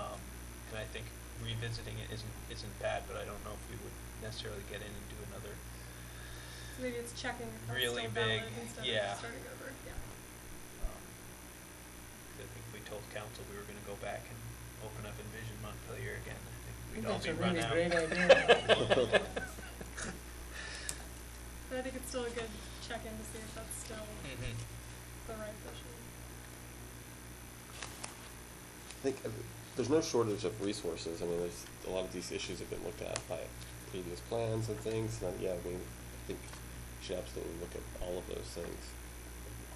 Um, think revisiting it isn't, isn't bad, but I don't know if we would necessarily get in and do another. um, So maybe it's checking if that's Really still big, valid instead of yeah. just starting over, yeah. um, 'cause I think we told council we were gonna go back and open up Envision Montpelier again. I think we'd all That's be a run really out. great idea. But I think it's still a good check-in to see if that's still Mm-hmm. the right vision. I think uh, there's no shortage of resources. I mean, there's, a lot of these issues have been looked at by previous plans and things. And, yeah, I mean, I think you should absolutely look at all of those things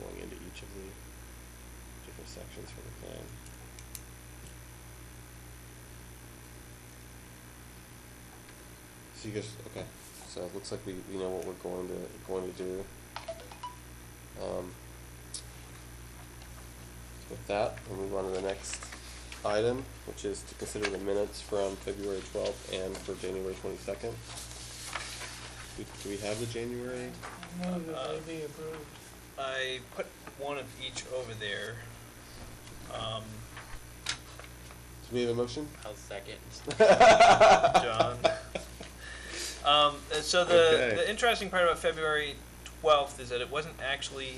going into each of the different sections for the plan. So you guys, okay, so it looks like we, we know what we're going to, going to do. Um, with that, we'll move on to the next item, which is to consider the minutes from February twelfth and for January twenty-second. Do, do we have the January? Move that Uh, they be approved. I put one of each over there. Um, Do we have a motion? I'll second. John. Um, uh, so the, Okay. the interesting part about February twelfth is that it wasn't actually,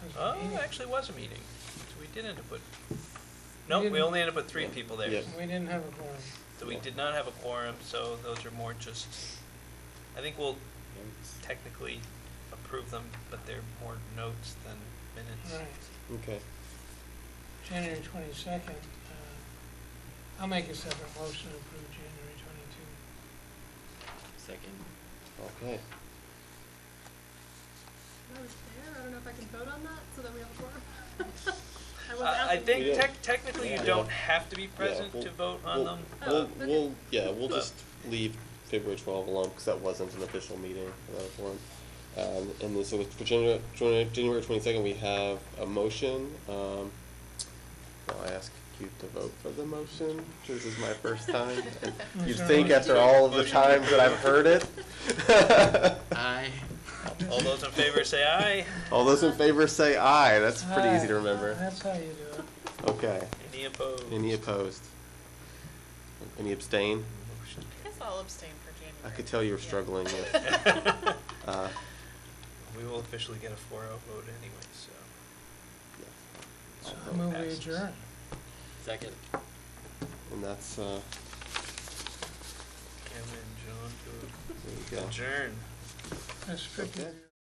There's a oh, meeting. it actually was a meeting. So we did end up with, nope, we didn't- only ended up with three people there. Yeah. We didn't have a quorum. So we did not have a quorum, so those are more just, I think we'll technically approve them, but they're more notes than All minutes. right, Okay, January twenty-second, uh, I'll make a separate motion to approve January twenty-two. Second. okay. I was there, I don't know if I can vote on that, so that we have a forum. I was Uh, I absent. We think did. tec- technically you Yeah. don't have to be present we'll- to vote on we'll- them. Oh, We'll, okay. we'll, yeah, we'll But- just leave February twelve alone, because that wasn't an official meeting for that forum. Um, and then, so with- for January, January twenty-second, we have a motion, um, now I ask you to vote for the motion, this is my first time. and You'd Motion. think after all of the Motion to times that I've heard it. Aye. All those in favor say aye. All those in favor say aye, that's pretty easy to Ah, remember. That's how you do it. Okay, Any opposed? any opposed? Any abstain? Motion I guess I'll abstain for January. I could tell you were Yeah. struggling with, carries. uh, We will officially get a four oh vote anyway, so. yeah. So I'll I vote. move we passes. adjourn. Second. And that's, uh, Kevin, John, there you to go. adjourn. That's strictly. Okay.